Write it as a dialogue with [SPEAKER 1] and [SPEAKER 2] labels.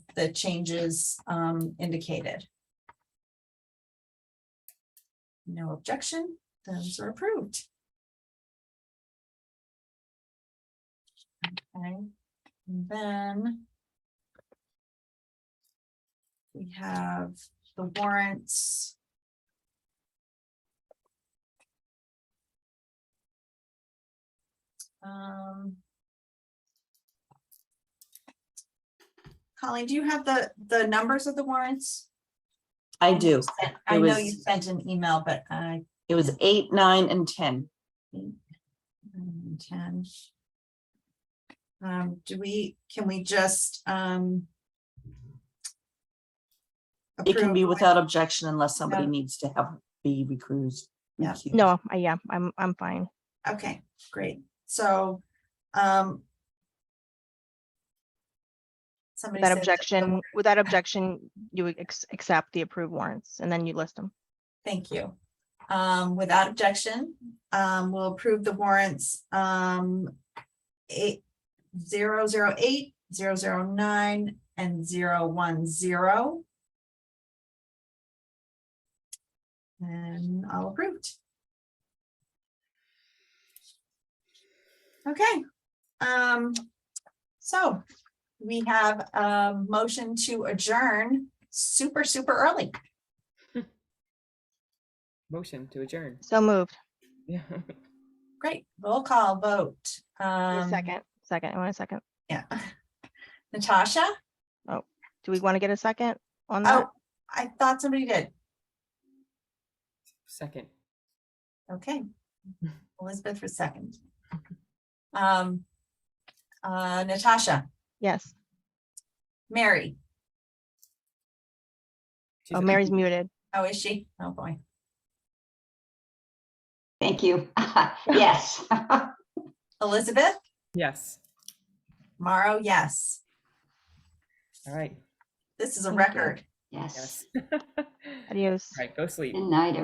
[SPEAKER 1] the changes um indicated. No objection, those are approved. Okay, and then. We have the warrants. Um. Colleen, do you have the, the numbers of the warrants?
[SPEAKER 2] I do.
[SPEAKER 1] Sent- I
[SPEAKER 2] It
[SPEAKER 1] know
[SPEAKER 2] was-
[SPEAKER 1] you sent an email, but I,
[SPEAKER 2] It was eight, nine, and ten.
[SPEAKER 1] um, ten. Um, do we, can we just, um.
[SPEAKER 2] It can be
[SPEAKER 1] approve
[SPEAKER 2] without objection unless somebody
[SPEAKER 1] Yeah.
[SPEAKER 2] needs to have, be recused.
[SPEAKER 1] Yeah.
[SPEAKER 2] recused.
[SPEAKER 3] No, I, yeah, I'm, I'm fine.
[SPEAKER 1] Okay, great. So, um. Somebody
[SPEAKER 3] That
[SPEAKER 1] said the- the
[SPEAKER 3] objection, with that objection, you would ex- accept the approved warrants and then you list them.
[SPEAKER 1] Thank you. Um, without objection, um, we'll approve the warrants, um, eight, zero, zero, eight, zero, zero, nine, and zero, one, zero. And all approved. Okay, um, so we have a motion to adjourn super, super early.
[SPEAKER 4] Motion to adjourn.
[SPEAKER 3] So moved.
[SPEAKER 4] Yeah.
[SPEAKER 1] Great, roll call vote.
[SPEAKER 3] Wait a
[SPEAKER 1] Um,
[SPEAKER 3] Second, second, I want a second.
[SPEAKER 1] Yeah. Natasha?
[SPEAKER 3] Do we want to get a second on that?
[SPEAKER 1] Oh, I thought somebody did.
[SPEAKER 4] Second.
[SPEAKER 1] Okay. Elizabeth was second. Um, uh, Natasha,
[SPEAKER 3] Yes.
[SPEAKER 1] Mary,
[SPEAKER 4] She's
[SPEAKER 3] Oh,
[SPEAKER 4] a-
[SPEAKER 3] Mary's muted.
[SPEAKER 1] oh, is she? Oh, boy.
[SPEAKER 5] Thank you. Yes.
[SPEAKER 1] Elizabeth,
[SPEAKER 4] Yes.
[SPEAKER 1] Mauro, yes.
[SPEAKER 4] All right.
[SPEAKER 1] This is a
[SPEAKER 5] Thank you.
[SPEAKER 1] record.
[SPEAKER 5] Yes.
[SPEAKER 4] Yes.
[SPEAKER 3] Adios.
[SPEAKER 4] All right. Go sleep.
[SPEAKER 5] Good night,